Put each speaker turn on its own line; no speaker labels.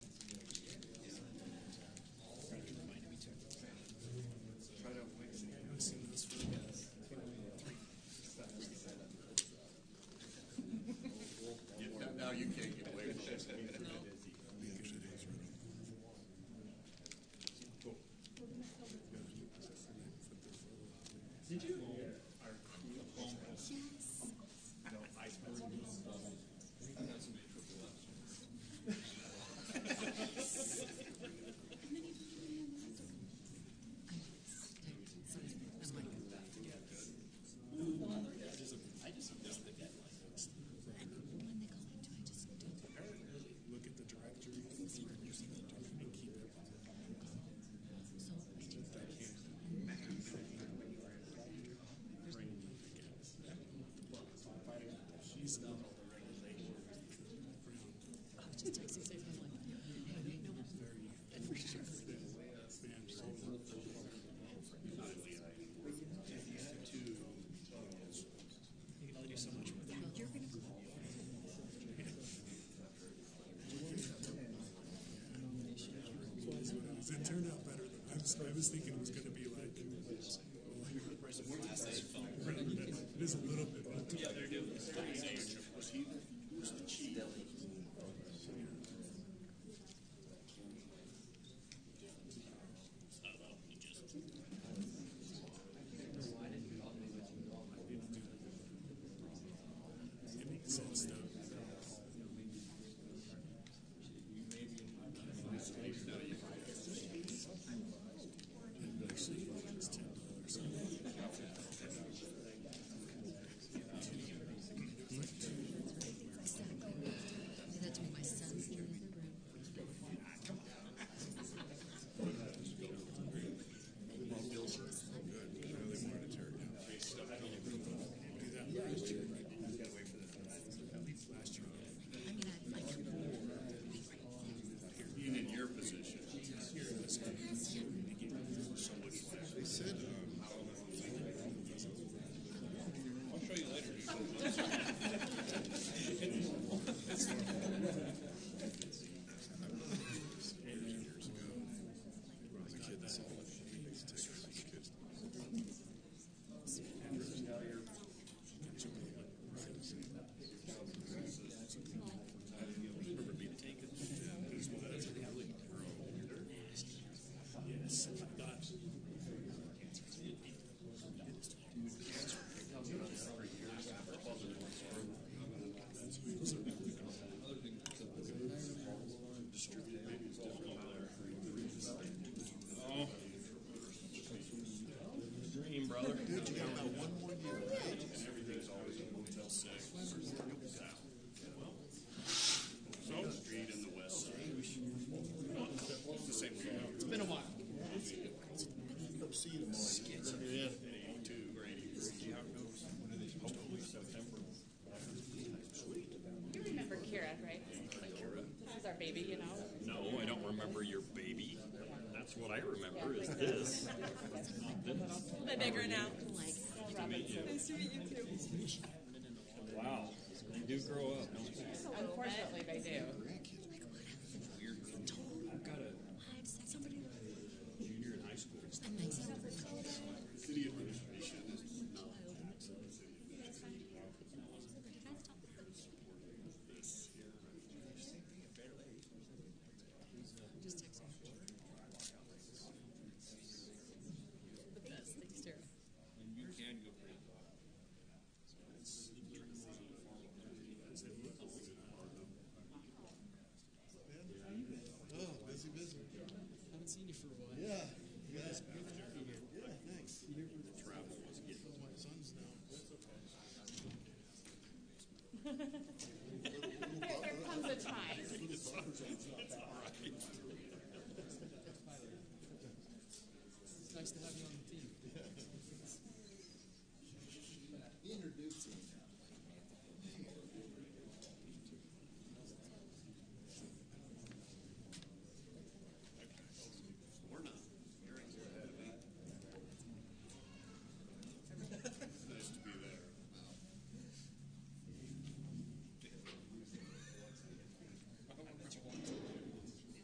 I was, I was thinking it was going to be like. It is a little bit. It makes sense though.
Do that to my son's in the other room. I mean, I like him.
Being in your position. Dream, brother. So, street in the west side. It's the same thing. It's been a while. Yeah. In eighty-two or eighty-three. Hopefully September.
You remember Kira, right? This is our baby, you know?
No, I don't remember your baby. That's what I remember is this.
A bit bigger now.
Like,
Nice to meet you too.
Wow. You do grow up.
Unfortunately, they do.